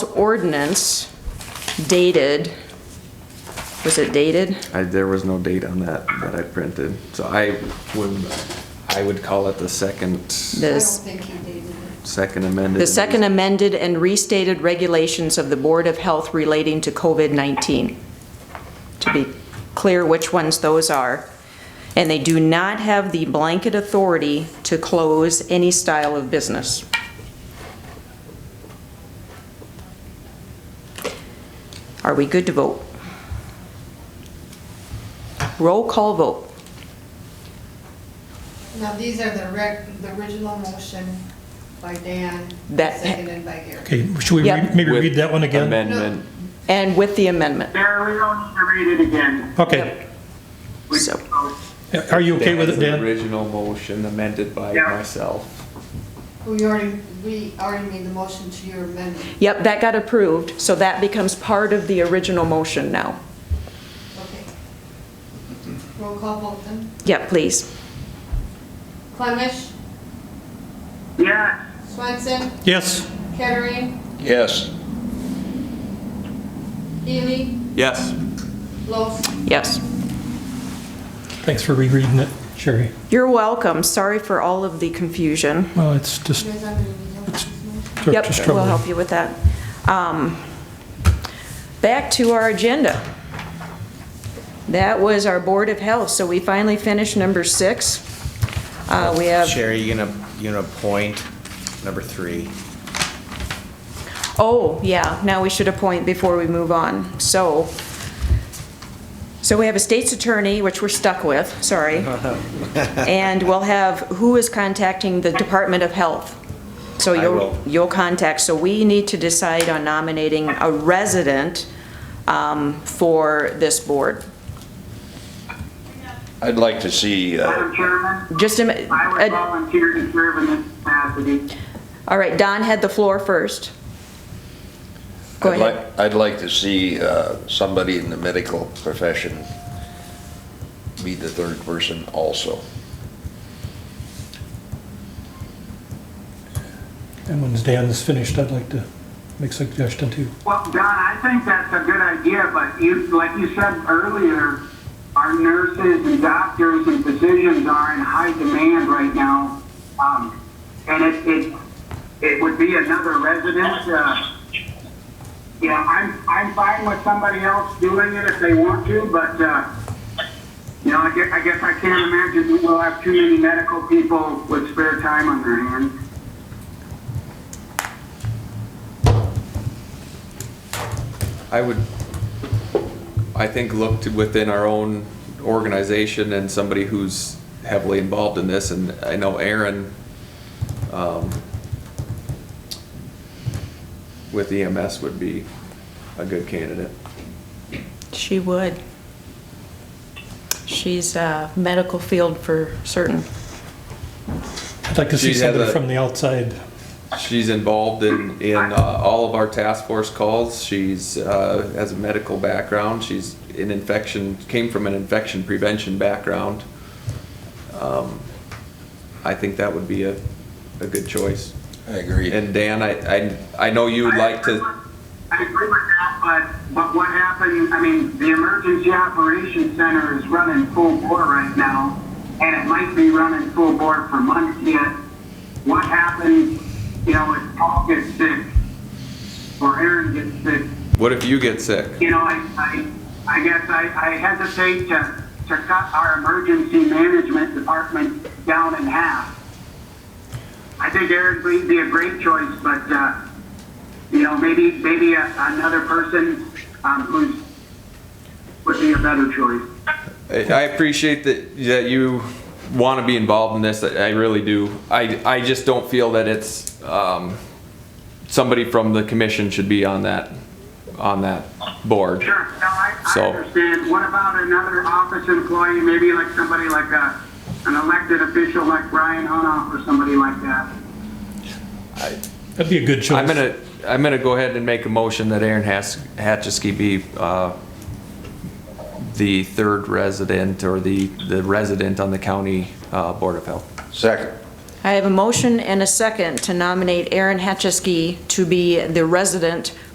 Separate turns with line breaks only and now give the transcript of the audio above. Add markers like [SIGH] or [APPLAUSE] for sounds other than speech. ordinance dated, was it dated?
I, there was no date on that that I printed, so I would, I would call it the second,
This,
I don't think he dated it.
second amended.
the second amended and restated regulations of the Board of Health relating to COVID-19. To be clear which ones those are. And they do not have the blanket authority to close any style of business. Are we good to vote? Roll call vote.
Now, these are the rec, the original motion by Dan,
That-
seconded by Gary.
Okay, should we
Yeah.
re- maybe
With
read that one again?
Amendment.
And with the amendment.
There, we don't need to read it again.
Okay,
We-
So-
are you okay with it,
Dan's
Dan?
Original motion amended by
Yeah.
myself.
We Oh, already, we already made the motion to your amendment.
Yep, that got approved, so that becomes part of the original motion now.
Okay. Roll call vote then.
Yep, please.
Clemish,
Yes,
Swenson,
Yes,
Kettering,
Yes.
Healy,
Yes.
Los.
Yes.
thanks for rereading it, Sherry.
You're welcome. Sorry for all of the confusion.
Well, it's just
You guys aren't gonna need those motions.
sort of
Yep, we'll help
troubling.
you with that. Um, Back to our agenda. That was our Board of Health, so we finally finished number six. Uh, We have,
Sherry, you gonna, you gonna appoint number three?
oh, yeah, now we should appoint before we move on. So, so we have a state's attorney, which we're stuck with,
[LAUGHS]
sorry. And we'll have, who is contacting the Department of Health? So
I
you'll,
will.
you'll contact, so we need to decide on nominating a resident um, for this board.
I'd like to see, uh,
Madam Chairman,
Just a, mi-
I would
uh,
volunteer to serve in this capacity.
all right, Don had the floor first. Go
I'd
ahead.
like, I'd like to see uh, somebody in the medical profession be the third person also.
And when Dan's finished, I'd like to make suggestion too.
Well, Don, I think that's a good idea, but you, like you said earlier, our nurses and doctors and physicians are in high demand right now. Um, and it, it, it would be another resident, uh, yeah, I'm, I'm fine with somebody else doing it if they want to, but, uh, you know, I guess, I guess I can't imagine we'll have too many medical people with spare time on their hands.
I would, I think, look to within our own organization and somebody who's heavily involved in this, and I know Aaron, um, with EMS would be a good candidate.
She would. She's uh, medical field for certain.
I'd like to see
She'd have
somebody
a-
from the outside.
She's involved in, in uh, all of our task force calls. She's, uh, has a medical background. She's in infection, came from an infection prevention background. Um, I think that would be a, a good choice.
I agree.
And Dan, I, I, I know you would like to,
I agree with that, but, but what happened, I mean, the Emergency Operations Center is running full bore right now, and it might be running full bore for months yet. What happens, you know, if Paul gets sick, or Aaron gets sick,
what if you get sick?
you know, I, I, I guess I, I hesitate to, to cut our emergency management department down in half. I think Eric would be a great choice, but, uh, you know, maybe, maybe a- another person, um, who's, would be a better choice.
I I appreciate that, that you want to be involved in this. I I really do. I, I just don't feel that it's, um, somebody from the commission should be on that, on that board.
Sure, no, I, I
So-
understand. What about another office employee, maybe like somebody like a, an elected official like Brian Hunoff or somebody like that?
That'd be a good choice.
I'm gonna, I'm gonna go ahead and make a motion that Aaron Has- Hatchesky be, uh, the third resident or the, the resident on the county, uh, Board of Health.
Second,
I have a motion and a second to nominate Aaron Hatchesky to be the resident